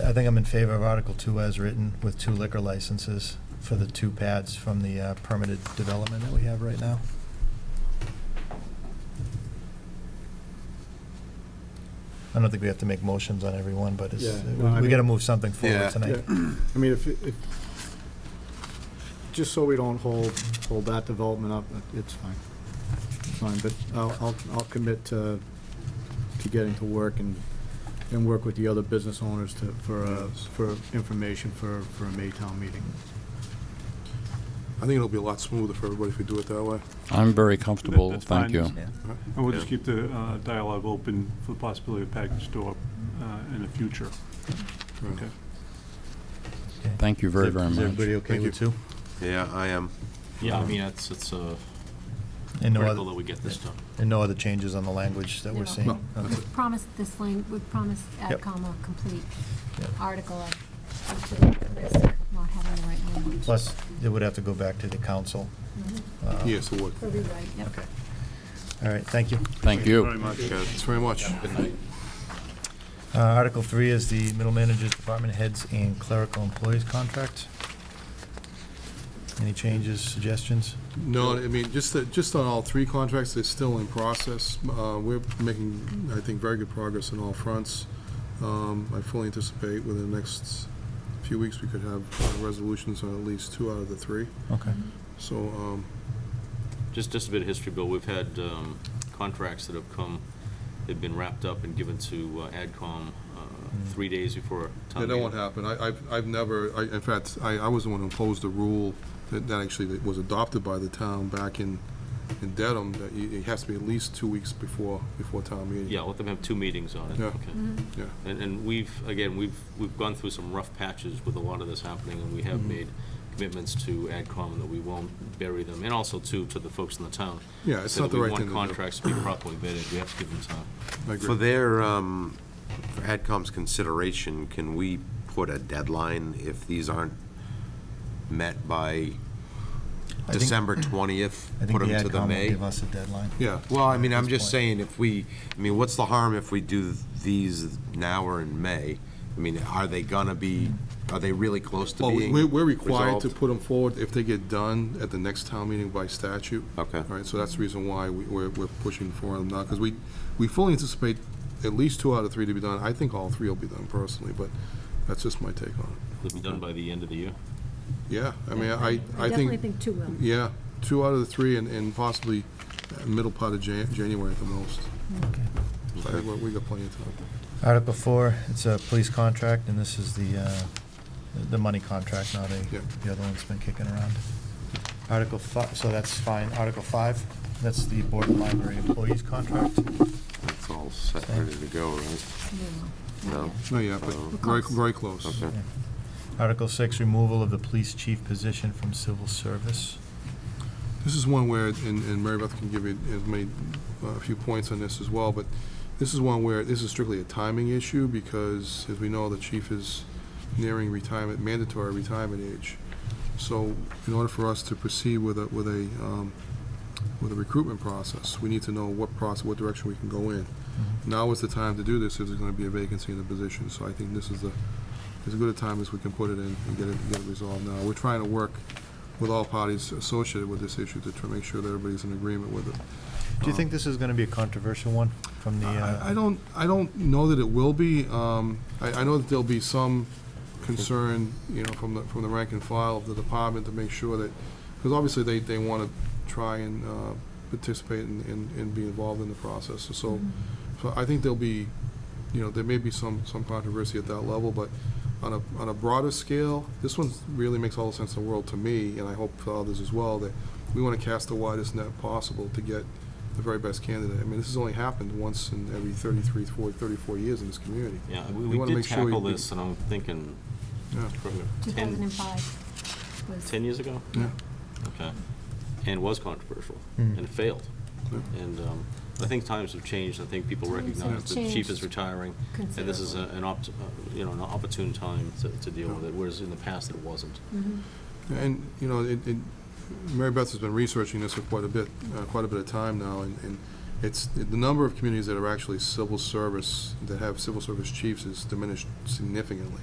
I think I'm in favor of Article 2 as written, with two liquor licenses for the two pads from the uh, permitted development that we have right now. I don't think we have to make motions on every one, but it's, Yeah, no, I we mean- gotta move something forward Yeah. tonight. I mean, if, if, just so we don't hold, hold that development up, it's fine. It's fine, but I'll, I'll, I'll commit to, to getting to work and, and work with the other business owners to, for, uh, for information for, for a Maytown meeting. I think it'll be a lot smoother for everybody if we do it that way. I'm very comfortable, that's thank fine. you. And we'll just keep the uh, dialogue open for the possibility of package store uh, in the future. Okay. Thank you very, very Is much. everybody okay Thank with two? Yeah, I am. Yeah, I mean, it's, it's uh, And no critical that other, we get this done. and no other changes on the language that we're No. seeing? No, Okay. We've promised this lang, we've promised Yep. AdCom a complete Yep. article. I actually risk Not having the right language. Plus, it would have to go back to the council. Mhm. uh, Yes, it would. For rewrite, yep. Okay. All right, thank you. Thank you. Thanks very much. Uh, Article three is the middle managers, department heads, and clerical employees contract. Any changes, suggestions? No, I mean, just, that- just on all three contracts, they're still in process. Uh, We're making, I think, very good progress on all fronts. Um, I fully anticipate within the next few weeks, we could have uh, resolutions on at least two out of the three. Okay. So, um, Just, just a bit of history, Bill. We've had um, contracts that have come, they've been wrapped up and given to uh, AdCom uh, three days before Yeah, town that meeting. won't happen. I, I've, I've never, I, in fact, I, I was the one who imposed the rule that, that actually that was adopted by the town back in, in Dedham, that you- it has to be at least two weeks before, before town meeting. Yeah, let them have two meetings on it. Yeah. Okay. Yeah. And, and we've, again, we've, we've gone through some rough patches with a lot of this happening, and we have made commitments to AdCom that we won't bury them, and also to, to the folks in the town. Yeah, it's So not that the right thing We to want do. contracts to be properly vetted. We have to give them time. I For agree. their, um, for AdCom's consideration, can we put a deadline if these aren't met by I think- December 20th? I think Put the them to the AdCom will May? give us a deadline. Yeah, Well, I mean, at I'm this just point. saying, if we, I mean, what's the harm if we do these now or in May? I mean, are they gonna be, are they really close to well, being we're, we're required to resolved? put them forward if they get done at the next town meeting by statute. Okay. All right, so that's the reason why we, we're, we're pushing for them now, because we, we fully anticipate at least two out of three to be done. I think all three will be done personally, but that's just my take on it. They'll be done by the end of the year. Yeah, I mean, I, I I definitely think think two will. Yeah, two out of the three, and, and possibly middle part of Jan- January at the most. So I think we- we got plenty of time. Article four, it's a police contract, and this is the, uh, the money contract, not a, Yeah. the other one's been kicking around. Article five, so that's fine. Article five, that's the board and library employees contract. It's all set, ready to go, right? No, not No. yet. No, yeah, but very, close. very close. Okay. Article six, removal of the police chief position from civil service. This is one where, and, and Mary Beth can give you, has made a few points on this as well, but this is one where, this is strictly a timing issue, because as we know, the chief is nearing retirement, mandatory retirement age. So in order for us to proceed with a, with a, um, with a recruitment process, we need to know what process, what direction we can go in. Now is the time to do this, if there's gonna be a vacancy in the position, so I think this is the, as good a time as we can put it in and get it, get it resolved now. We're trying to work with all parties associated with this issue to try to make sure that everybody's in agreement with it. Do you think this is gonna be a controversial one from the, I I uh, don't, I don't know that it will be. Um, I, I know that there'll be some concern, you know, from the, from the rank and file of the department to make sure that, because obviously they, they want to try and uh, participate and, and- and be involved in the process. So, so I think there'll be, you know, there may be some, some controversy at that level, but on a, on a broader scale, this one really makes all the sense in the world to me, and I hope for others as well, that we want to cast the widest net possible to get the very best candidate. I mean, this has only happened once in every 33, 40, 34 years in this community. Yeah, We we- we wanna did make sure we- tackle this, and I'm thinking, Yeah. correct me, 10 2005 was. 10 years ago? Yeah. Okay. And was controversial, Hmm. and it failed. Yeah. And um, I think times have changed, I think people Times have recognize that the chief changed is retiring, and this is a- an opt, uh, you know, an opportune time to, to deal with it, whereas in the past it wasn't. Mhm. And, you know, it, it, Mary Beth has been researching this for quite a bit, uh, quite a bit of time now, and, and it's, the number of communities that are actually civil service, that have civil service chiefs is diminished significantly.